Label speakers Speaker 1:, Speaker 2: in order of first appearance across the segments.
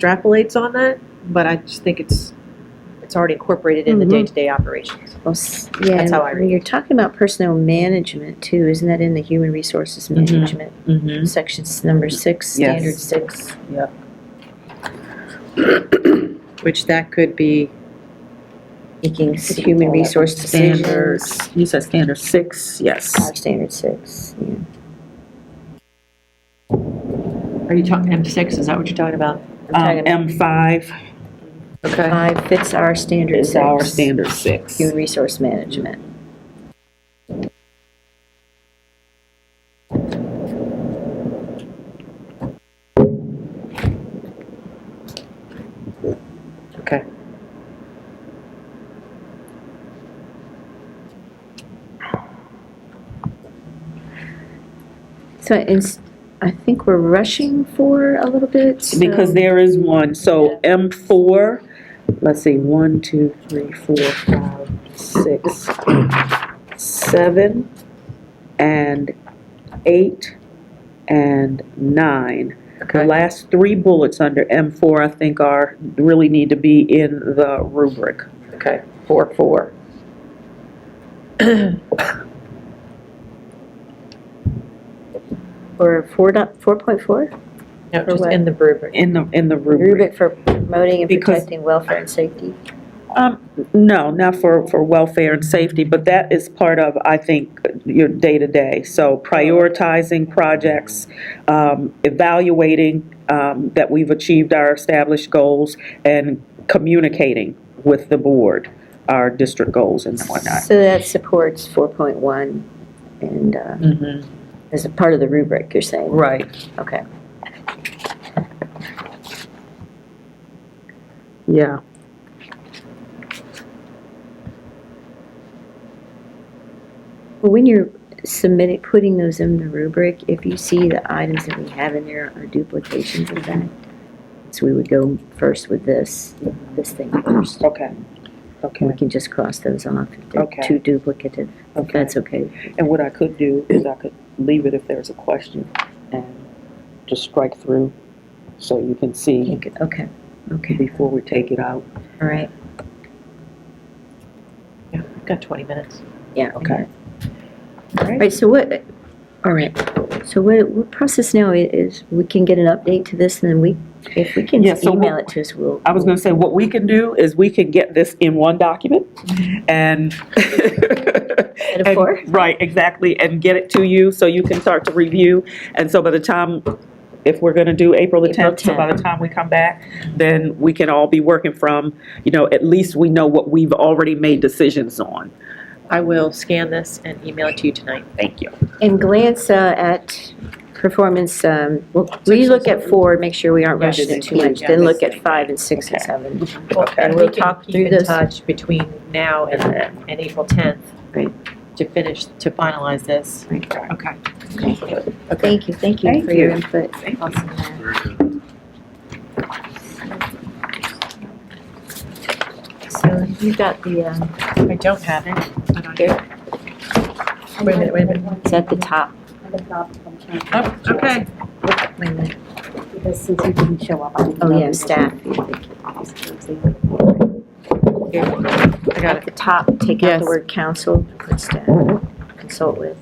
Speaker 1: extrapolates on that, but I just think it's, it's already incorporated in the
Speaker 2: Mhm.
Speaker 1: day-to-day operations.
Speaker 2: Well, s- yeah,
Speaker 1: That's
Speaker 2: and
Speaker 1: how I
Speaker 2: when
Speaker 1: read it.
Speaker 2: You're talking about personnel management too, isn't that in the human resources
Speaker 3: Mhm.
Speaker 2: management?
Speaker 3: Mm-hmm.
Speaker 2: Sections number six,
Speaker 3: Yes.
Speaker 2: standard six.
Speaker 1: Which that could be,
Speaker 2: Making s- human resource decisions.
Speaker 3: Standards, you said standard six, yes.
Speaker 2: Five, standard six, yeah.
Speaker 4: Are you talking M6, is that what you're talking about?
Speaker 2: I'm
Speaker 3: Um,
Speaker 2: talking
Speaker 3: M five
Speaker 4: Okay.
Speaker 2: Five fits our standard
Speaker 3: is our
Speaker 2: six,
Speaker 3: standard six.
Speaker 2: human resource management.
Speaker 4: Okay.
Speaker 2: So it's, I think we're rushing for a little bit, so-
Speaker 3: Because there is one, so M four, let's see, one, two, three, four, five, six, seven, and eight, and nine. The
Speaker 4: Okay.
Speaker 3: last three bullets under M four, I think are, really need to be in the rubric.
Speaker 4: Okay, four, four.
Speaker 2: Or four dot, four point four?
Speaker 1: no,
Speaker 2: For
Speaker 1: just
Speaker 2: what?
Speaker 1: in the rubric.
Speaker 3: In the, in the rubric.
Speaker 2: Rubric for promoting and
Speaker 3: Because-
Speaker 2: protecting welfare and safety.
Speaker 3: Um, no, not for, for welfare and safety, but that is part of, I think, your day-to-day. So prioritizing projects, um, evaluating, um, that we've achieved our established goals and communicating with the board, our district goals and whatnot.
Speaker 2: So that supports four point one and, uh, as a part of the rubric, you're saying?
Speaker 3: Right.
Speaker 2: Okay.
Speaker 3: Yeah.
Speaker 2: Well, when you're submitting, putting those in the rubric, if you see the items that we have in there are duplications of that, so we would go first with this, this thing first.
Speaker 3: Okay.
Speaker 2: And we
Speaker 3: Okay.
Speaker 2: can just cross those off if they're
Speaker 3: Okay.
Speaker 2: too duplicative.
Speaker 3: Okay.
Speaker 2: That's okay.
Speaker 3: And what I could do is I could leave it if there's a question and just strike through so you can see
Speaker 2: Okay, okay,
Speaker 3: before we take it out.
Speaker 2: all right.
Speaker 1: Yeah, we've got 20 minutes.
Speaker 2: Yeah.
Speaker 3: Okay.
Speaker 2: All right, so what, all right, so what, what process now i- is, we can get an update to this, and then we, if we can
Speaker 3: Yeah, so
Speaker 2: email
Speaker 3: what-
Speaker 2: it to us, we'll.
Speaker 3: I was gonna say, what we can do is we can get this in one document and.
Speaker 2: Instead of four?
Speaker 3: and- Right, exactly, and get it to you so you can start to review. And so by the time, if we're gonna do April the
Speaker 2: April
Speaker 3: 10th, so by the time we come back, then we can all be working from, you know, at least we know what we've already made decisions on.
Speaker 1: I will scan this and email it to you tonight.
Speaker 3: Thank you.
Speaker 2: And glance uh, at performance, um, well, we look at four, make sure we aren't
Speaker 1: Yeah,
Speaker 2: rushing it
Speaker 3: just
Speaker 2: too much,
Speaker 3: include, yeah,
Speaker 2: then look
Speaker 3: this
Speaker 2: at five and six and
Speaker 3: Okay.
Speaker 2: seven.
Speaker 1: And
Speaker 3: Okay.
Speaker 1: we
Speaker 2: we'll
Speaker 1: can
Speaker 2: talk
Speaker 1: keep
Speaker 2: through
Speaker 1: in
Speaker 2: this.
Speaker 1: touch between now and, and April 10th.
Speaker 2: Right.
Speaker 1: To finish, to finalize this.
Speaker 3: Okay.
Speaker 2: Thank you, thank you
Speaker 3: Thank
Speaker 2: for your
Speaker 3: you.
Speaker 2: input. So you've got the, um,
Speaker 1: I don't have it. I don't have it. Wait a minute, wait a minute.
Speaker 2: it's at the top.
Speaker 5: At the top from Karen,
Speaker 1: Oh, okay.
Speaker 2: Wait a minute.
Speaker 5: Because since you didn't show up, I didn't.
Speaker 2: Oh,
Speaker 5: know
Speaker 2: yeah,
Speaker 5: you-
Speaker 2: staff.
Speaker 1: Here. I got
Speaker 2: At
Speaker 1: it.
Speaker 2: the top, take out
Speaker 1: Yes.
Speaker 2: the word council, put staff, consult with.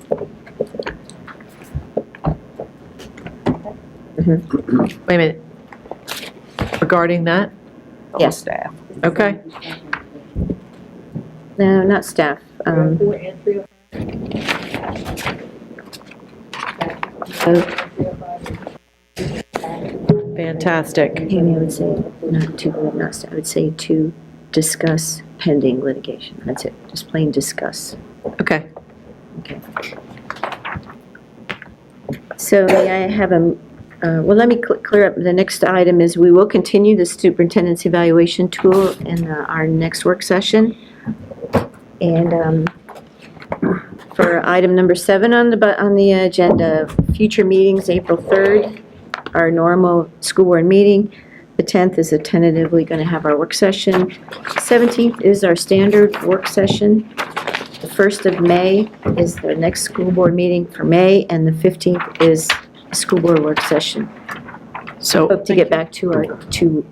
Speaker 1: Wait a minute. Regarding that,
Speaker 2: Yes,
Speaker 1: okay.
Speaker 2: no, not staff, um,
Speaker 5: Four and three.
Speaker 2: oh,
Speaker 1: Fantastic.
Speaker 2: maybe I would say not to, not staff, I would say to discuss pending litigation, that's it, just plain discuss.
Speaker 1: Okay.
Speaker 2: So may I have a, uh, well, let me cl- clear up, the next item is we will continue the superintendent's evaluation tool in uh, our next work session. And um, for item number seven on the, bu- on the agenda, future meetings, April 3rd, our normal school board meeting. The 10th is a tentatively going to have our work session. 17th is our standard work session. The 1st of May is the next school board meeting for May, and the 15th is a school board work session.
Speaker 1: So
Speaker 2: hope to get back to our, to